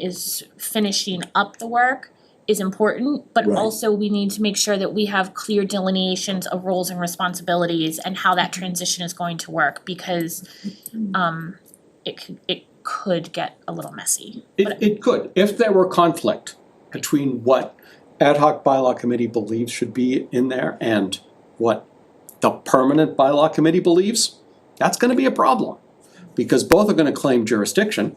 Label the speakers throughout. Speaker 1: is finishing up the work is important, but
Speaker 2: Right.
Speaker 1: also we need to make sure that we have clear delineations of roles and responsibilities and how that transition is going to work because um it could it could get a little messy.
Speaker 3: It, it could, if there were conflict between what ad hoc bylaw committee believes should be in there and what the permanent bylaw committee believes, that's gonna be a problem. Because both are gonna claim jurisdiction,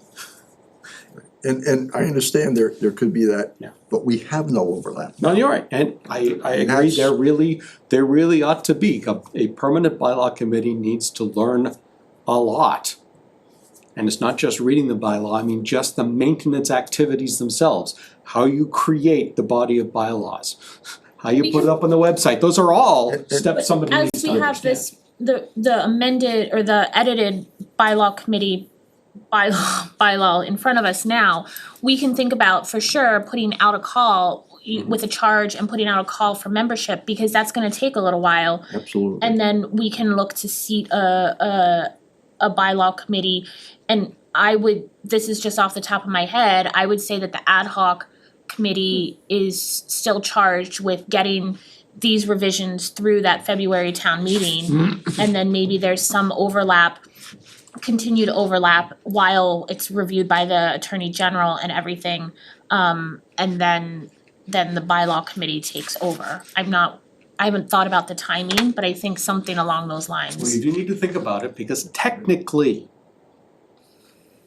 Speaker 2: And and I understand there there could be that,
Speaker 3: Yeah.
Speaker 2: but we have no overlap.
Speaker 3: no, you're right, and I, I agree,
Speaker 2: That's-
Speaker 3: there really, there really ought to be, a, a permanent bylaw committee needs to learn a lot. And it's not just reading the bylaw, I mean, just the maintenance activities themselves, how you create the body of bylaws, how you put it up on the website, those are all steps somebody
Speaker 1: As
Speaker 3: needs to
Speaker 1: we
Speaker 3: understand.
Speaker 1: have this, the the amended or the edited bylaw committee bylaw bylaw in front of us now, we can think about for sure putting out a call y-
Speaker 3: Mm-hmm.
Speaker 1: with a charge and putting out a call for membership because that's gonna take a little while.
Speaker 2: Absolutely.
Speaker 1: And then we can look to seat a a a bylaw committee. And I would, this is just off the top of my head, I would say that the ad hoc committee is still charged with getting these revisions through that February town meeting. And then maybe there's some overlap, continued overlap while it's reviewed by the attorney general and everything. Um and then then the bylaw committee takes over. I'm not, I haven't thought about the timing, but I think something along those
Speaker 3: Well,
Speaker 1: lines.
Speaker 3: you do need to think about it, because technically,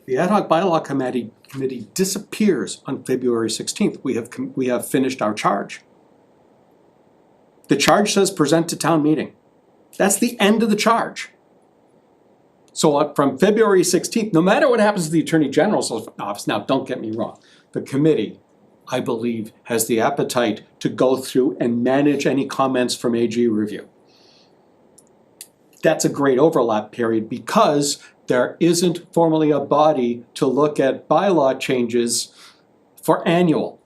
Speaker 3: the ad hoc bylaw committee, committee disappears on February sixteenth, we have, com- we have finished our charge. The charge says present to town meeting, that's the end of the charge. So on- from February sixteenth, no matter what happens to the Attorney General's office, now, don't get me wrong, the committee, I believe, has the appetite to go through and manage any comments from AG review that's a great overlap period because there isn't formally a body to look at bylaw changes for annual.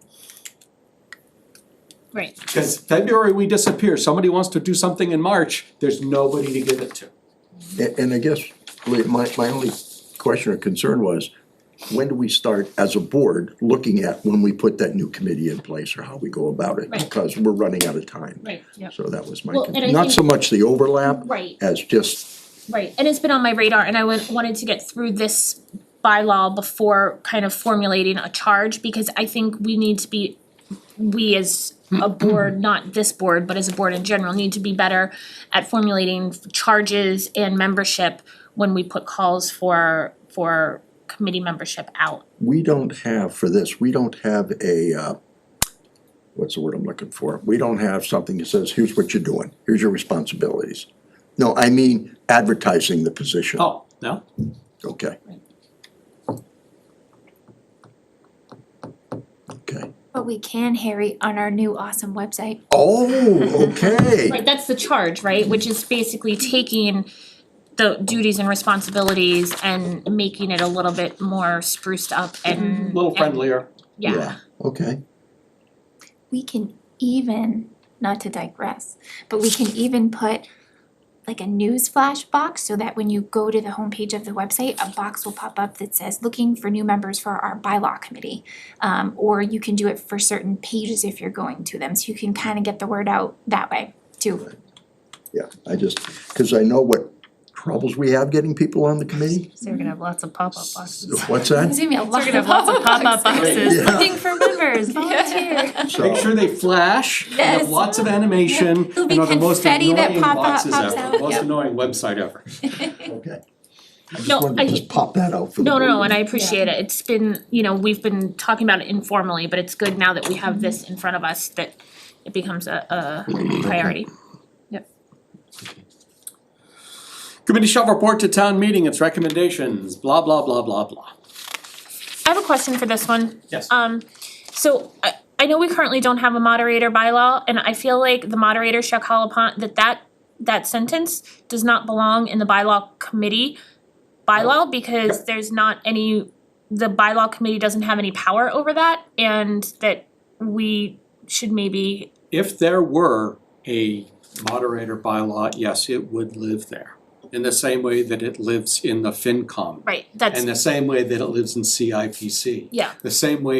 Speaker 1: Right.
Speaker 3: Because February we disappear, somebody wants to do something in March, there's nobody to give it to.
Speaker 2: And and I guess, Lee, my my only question or concern was, when do we start as a board looking at when we put that new committee in place or how we go about it?
Speaker 1: Right.
Speaker 2: Because we're running out of time.
Speaker 1: Right, yep.
Speaker 2: So that was my,
Speaker 1: Well,
Speaker 2: con-
Speaker 1: and I
Speaker 2: not
Speaker 1: think-
Speaker 2: so much the overlap
Speaker 1: Right,
Speaker 2: as just,
Speaker 1: right. And it's been on my radar and I went, wanted to get through this bylaw before kind of formulating a charge because I think we need to be, we as a board, not this board, but as a board in general, need to be better at formulating charges and membership when we put calls for for committee membership out.
Speaker 2: we don't have for this, we don't have a, uh, what's the word I'm looking for? We don't have something that says, here's what you're doing, here's your responsibilities. No, I mean advertising the position.
Speaker 3: Oh, no?
Speaker 2: Okay. Okay.
Speaker 4: But we can, Harry, on our new awesome website.
Speaker 2: Oh, okay.
Speaker 1: Right, that's the charge, right, which is basically taking the duties and responsibilities and making it a little bit more spruced up
Speaker 3: A
Speaker 1: and
Speaker 3: little
Speaker 1: and-
Speaker 3: friendlier.
Speaker 1: Yeah,
Speaker 2: Okay,
Speaker 4: We can even, not to digress, but we can even put like a news flash box so that when you go to the homepage of the website, a box will pop up that says looking for new members for our bylaw committee. Um, or you can do it for certain pages if you're going to them, so you can kind of get the word out that way too.
Speaker 2: yeah, I just, cause I know what troubles we have getting people on the committee.
Speaker 5: So you're gonna have lots of pop-up boxes.
Speaker 2: What's that?
Speaker 4: It's gonna be a
Speaker 5: We're
Speaker 4: lot
Speaker 5: gonna have lots of pop-up boxes.
Speaker 2: Yeah.
Speaker 4: Looking for members, volunteer.
Speaker 3: Make
Speaker 2: So,
Speaker 3: sure they flash, and have
Speaker 4: Yes.
Speaker 3: lots of animation,
Speaker 4: It'll
Speaker 3: and
Speaker 4: be
Speaker 3: are the most
Speaker 4: confetti that
Speaker 3: annoying
Speaker 4: pop out-
Speaker 3: boxes
Speaker 4: pops
Speaker 3: ever,
Speaker 4: out,
Speaker 3: most
Speaker 4: yep.
Speaker 3: annoying website ever.
Speaker 2: okay. I just
Speaker 1: No,
Speaker 2: wanted to
Speaker 1: I-
Speaker 2: just pop that out for the.
Speaker 1: no, no, no,
Speaker 2: board.
Speaker 1: and I appreciate it, it's been, you know, we've been talking about it informally, but it's good now that we have this in front of us that it becomes a a priority.
Speaker 3: Committee shall report to town meeting its recommendations, blah, blah, blah, blah, blah.
Speaker 1: I have a question for this one.
Speaker 3: Yes.
Speaker 4: Uh,
Speaker 1: Um, so I, I know we currently don't have a moderator bylaw, and I feel like the moderator shall call upon, that that, that sentence does not belong in the bylaw committee bylaw, because there's not any, the bylaw committee doesn't have any power over that, and that we should maybe,
Speaker 3: If there were a moderator bylaw, yes, it would live there. in the same way that it lives in the FinCom.
Speaker 1: Right, that's
Speaker 3: In the same way that it lives in CIPC.
Speaker 1: Yeah.
Speaker 3: The same way